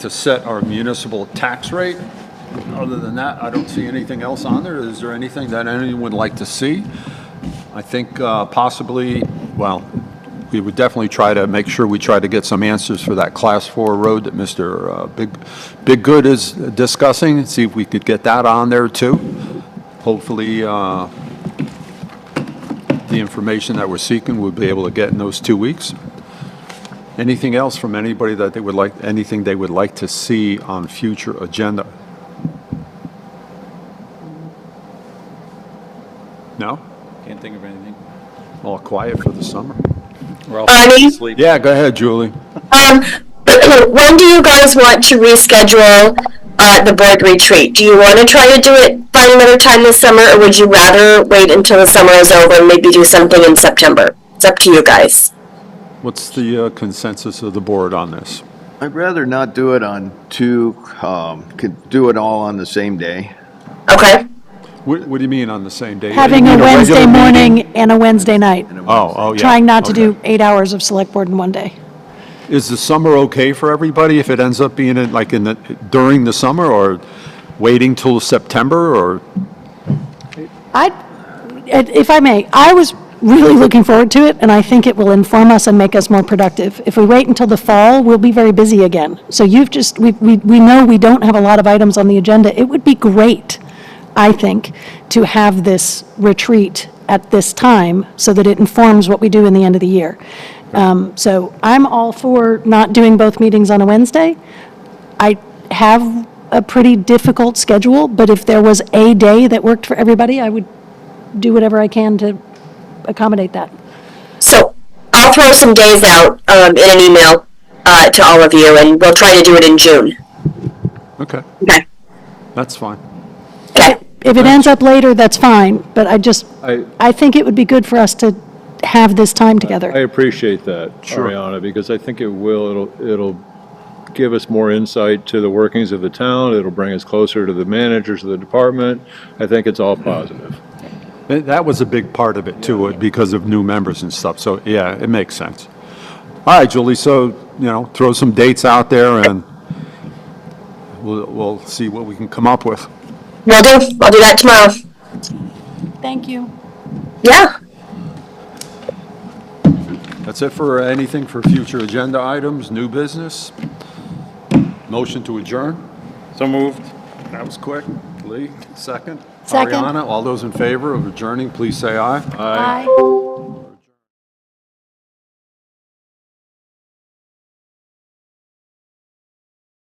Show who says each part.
Speaker 1: to set our municipal tax rate. Other than that, I don't see anything else on there. Is there anything that anyone would like to see? I think uh, possibly, well, we would definitely try to make sure we try to get some answers for that Class 4 road that Mr. uh, Big Big Good is discussing, and see if we could get that on there, too. Hopefully, uh, the information that we're seeking, we'll be able to get in those two weeks. Anything else from anybody that they would like, anything they would like to see on future agenda? No?
Speaker 2: Can't think of anything.
Speaker 1: All quiet for the summer?
Speaker 2: We're all
Speaker 3: Bonnie?
Speaker 2: asleep.
Speaker 1: Yeah, go ahead, Julie.
Speaker 3: Um, when do you guys want to reschedule uh, the board retreat? Do you want to try to do it, find another time this summer, or would you rather wait until the summer is over and maybe do something in September? It's up to you guys.
Speaker 1: What's the uh, consensus of the board on this?
Speaker 4: I'd rather not do it on two, um, could do it all on the same day.
Speaker 3: Okay?
Speaker 1: What, what do you mean on the same day?
Speaker 5: Having
Speaker 1: You
Speaker 5: a
Speaker 1: mean
Speaker 5: Wednesday
Speaker 1: regular meeting?
Speaker 5: morning and a Wednesday night.
Speaker 1: Oh, oh, yeah.
Speaker 5: Trying not to do
Speaker 1: Okay.
Speaker 5: eight hours of select board in one day.
Speaker 1: Is the summer okay for everybody if it ends up being in, like in the, during the summer or waiting till September or?
Speaker 5: I, and if I may, I was really looking forward to it, and I think it will inform us and make us more productive. If we wait until the fall, we'll be very busy again. So you've just, we, we, we know we don't have a lot of items on the agenda. It would be great, I think, to have this retreat at this time so that it informs what we do in the end of the year. Um, so I'm all for not doing both meetings on a Wednesday. I have a pretty difficult schedule, but if there was a day that worked for everybody, I would do whatever I can to accommodate that.
Speaker 3: So I'll throw some days out um, in an email uh, to all of you, and we'll try to do it in June.
Speaker 1: Okay,
Speaker 3: Okay.
Speaker 1: that's fine.
Speaker 3: Okay.
Speaker 5: If it ends up later, that's fine, but I just,
Speaker 6: I-
Speaker 5: I think it would be good for us to have this time
Speaker 6: I
Speaker 5: together.
Speaker 6: appreciate that,
Speaker 1: Sure.
Speaker 6: Ariana, because I think it will, it'll, it'll give us more insight to the workings of the town, it'll bring us closer to the managers of the department. I think it's all positive.
Speaker 1: Th- That was a big part of it too, uh, because of new members and stuff, so yeah, it makes sense. All right, Julie, so, you know, throw some dates out there and we'll, we'll see what we can come up with.
Speaker 3: Will do. I'll do that tomorrow.
Speaker 5: Thank you.
Speaker 3: Yeah.
Speaker 1: That's it for anything for future agenda items, new business? Motion to adjourn?
Speaker 2: So moved.
Speaker 1: That was quick. Lee, second?
Speaker 5: Second.
Speaker 1: Ariana, all those in favor of adjourning, please say aye.
Speaker 5: Bye.